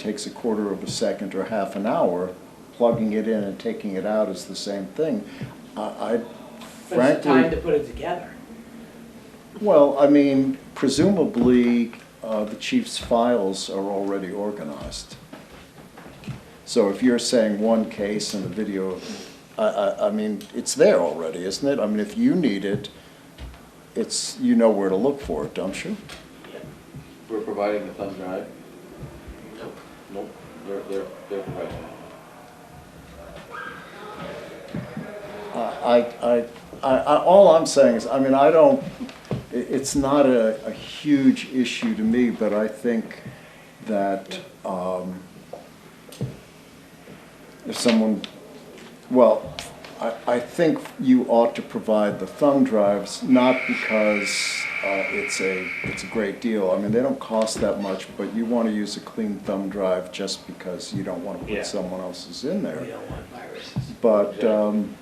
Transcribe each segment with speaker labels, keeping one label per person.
Speaker 1: takes a quarter of a second or half an hour, plugging it in and taking it out is the same thing. I I
Speaker 2: But it's the time to
Speaker 1: frankly,
Speaker 2: put it together.
Speaker 1: well, I mean, presumably, uh, the chief's files are already organized. So if you're saying one case and a video, I, I, I mean, it's there already, isn't it? I mean, if you need it, it's, you know where to look for it, don't you?
Speaker 3: We're providing the thumb drive?
Speaker 2: Nope.
Speaker 3: Nope, they're, they're, they're providing it.
Speaker 1: I, I, I, I- all I'm saying is, I mean, I don't, i- it's not a, a huge issue to me, but I think that, um, if someone, well, I, I think you ought to provide the thumb drives, not because, uh, it's a, it's a great deal. I mean, they don't cost that much, but you wanna use a clean thumb drive just because you don't wanna
Speaker 2: Yeah.
Speaker 1: put someone else's in there.
Speaker 2: We don't want viruses.
Speaker 1: But
Speaker 3: Yeah.
Speaker 1: um,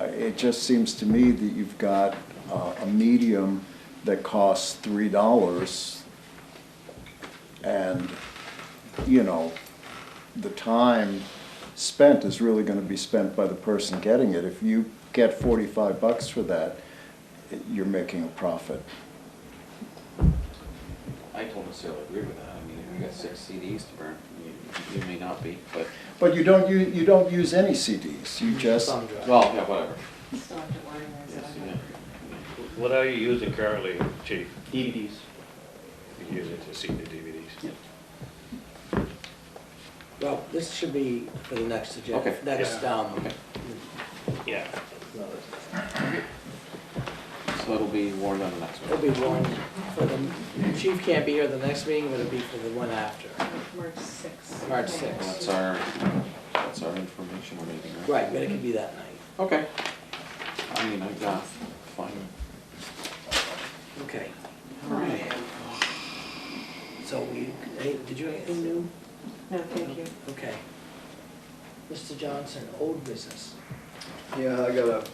Speaker 1: I- it just seems to me that you've got uh, a medium that costs three dollars. And, you know, the time spent is really gonna be spent by the person getting it. If you get forty-five bucks for that, you're making a profit.
Speaker 3: I don't necessarily agree with that, I mean, if you got six CDs to burn, you, you may not be, but,
Speaker 1: But you don't, u- you don't use any CDs, you just,
Speaker 2: Thumb drive.
Speaker 3: well, yeah, whatever.
Speaker 4: Still have to order those.
Speaker 3: Yes, yeah.
Speaker 4: I don't-
Speaker 5: What are you using currently, chief?
Speaker 3: DVDs.
Speaker 5: You use it to see the DVDs?
Speaker 2: Well, this should be for the next agenda,
Speaker 3: Okay.
Speaker 2: next,
Speaker 5: Yeah.
Speaker 2: um,
Speaker 3: Okay,
Speaker 5: Yeah.
Speaker 3: so it'll be warned on the next
Speaker 2: it'll
Speaker 3: one.
Speaker 2: be one for the, chief can't be here the next meeting, but it'll be for the one after.
Speaker 4: March sixth.
Speaker 2: March
Speaker 4: Okay.
Speaker 2: sixth.
Speaker 3: Well, That's our, that's our informational meeting, right?
Speaker 2: Right, but it could be that night.
Speaker 3: Okay. I mean, I got, fine.
Speaker 2: Okay.
Speaker 3: All right.
Speaker 2: So we, hey, did you have anything new?
Speaker 4: No, thank you.
Speaker 2: Okay. Mr. Johnson, old business.
Speaker 6: Yeah, I got a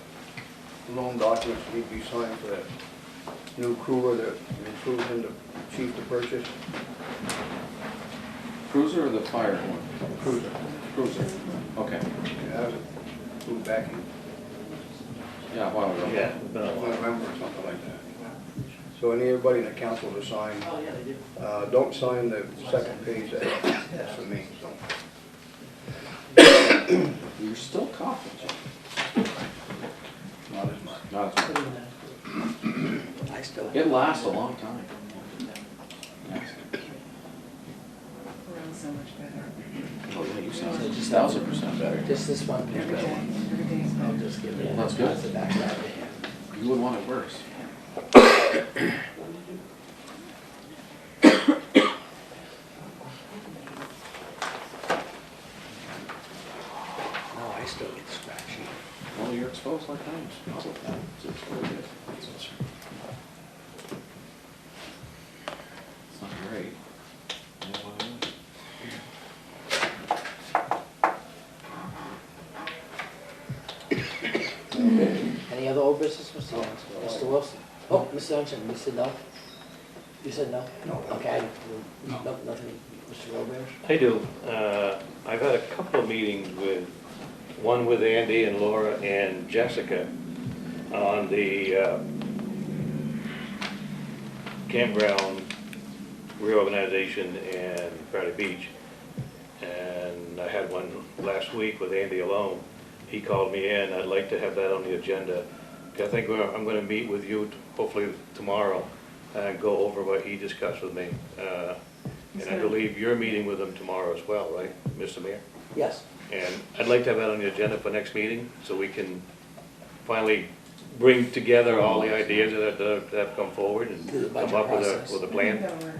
Speaker 6: loan document that need to be signed for that new crew that I'm approving the chief to purchase,
Speaker 3: Cruiser or the fire one?
Speaker 6: cruiser.
Speaker 3: Cruiser, okay,
Speaker 6: Yeah, I was approved back in
Speaker 3: yeah, a while ago.
Speaker 5: Yeah. no.
Speaker 6: November or something like that. So I need everybody in the council to sign.
Speaker 2: Oh, yeah, they did.
Speaker 6: Uh, don't sign the second page, that- that's for me, so.
Speaker 3: You're still coughing, Jim.
Speaker 6: Not as much.
Speaker 3: Not as much.
Speaker 2: I still have.
Speaker 3: It lasts a long time.
Speaker 4: We're all so much better.
Speaker 3: Oh, yeah, you sound a thousand percent better.
Speaker 2: Just this one page.
Speaker 4: Every day, every day is
Speaker 2: I'll
Speaker 4: better.
Speaker 2: just give it.
Speaker 3: That's good.
Speaker 2: the back side of the hand.
Speaker 3: You would want it worse.
Speaker 2: No, Oh, I still get scratchy.
Speaker 3: Well, you're exposed like I am. That's what that is. It's what it is. It's not great.
Speaker 2: Any other old business, Mr. Johnson? Mr. Wilson? Oh, Mr. Johnson, you said no? You said no?
Speaker 6: No.
Speaker 2: Okay. No, nothing, Mr. Robert?
Speaker 5: I do. Uh, I've had a couple of meetings with, one with Andy and Laura and Jessica on the uh, campground reorganization in Friday Beach. And I had one last week with Andy alone. He called me in, I'd like to have that on the agenda. I think we're- I'm gonna meet with you t- hopefully tomorrow and go over what he discussed with me. Uh, And I
Speaker 4: Okay.
Speaker 5: believe you're meeting with him tomorrow as well, right, Mr. Mayor?
Speaker 2: Yes.
Speaker 5: And I'd like to have that on the agenda for next meeting, so we can finally bring together all the ideas that that have come forward and
Speaker 2: Do the budget
Speaker 5: come up with
Speaker 2: process.
Speaker 5: a, with a plan.
Speaker 4: Don't worry.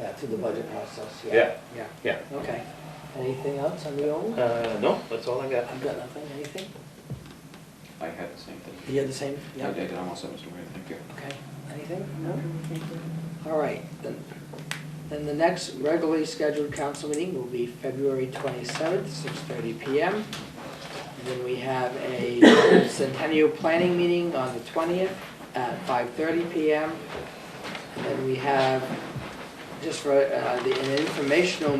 Speaker 2: Yeah, through the budget process, yeah.
Speaker 5: Yeah.
Speaker 2: Yeah.
Speaker 5: Yeah.
Speaker 2: Okay. Anything else on the old?
Speaker 5: Uh, no, that's all I got.
Speaker 2: I've got nothing, anything?
Speaker 3: I had the same thing.
Speaker 2: You have the same?
Speaker 3: I did, I almost said Mr. Ray, thank you.
Speaker 2: Okay. Anything? No?
Speaker 4: Thank you.
Speaker 2: All right, then, then the next regularly scheduled council meeting will be February twenty-seventh, six thirty PM. And Then we have a centennial planning meeting on the twentieth at five thirty PM. And then we have just for uh, the an informational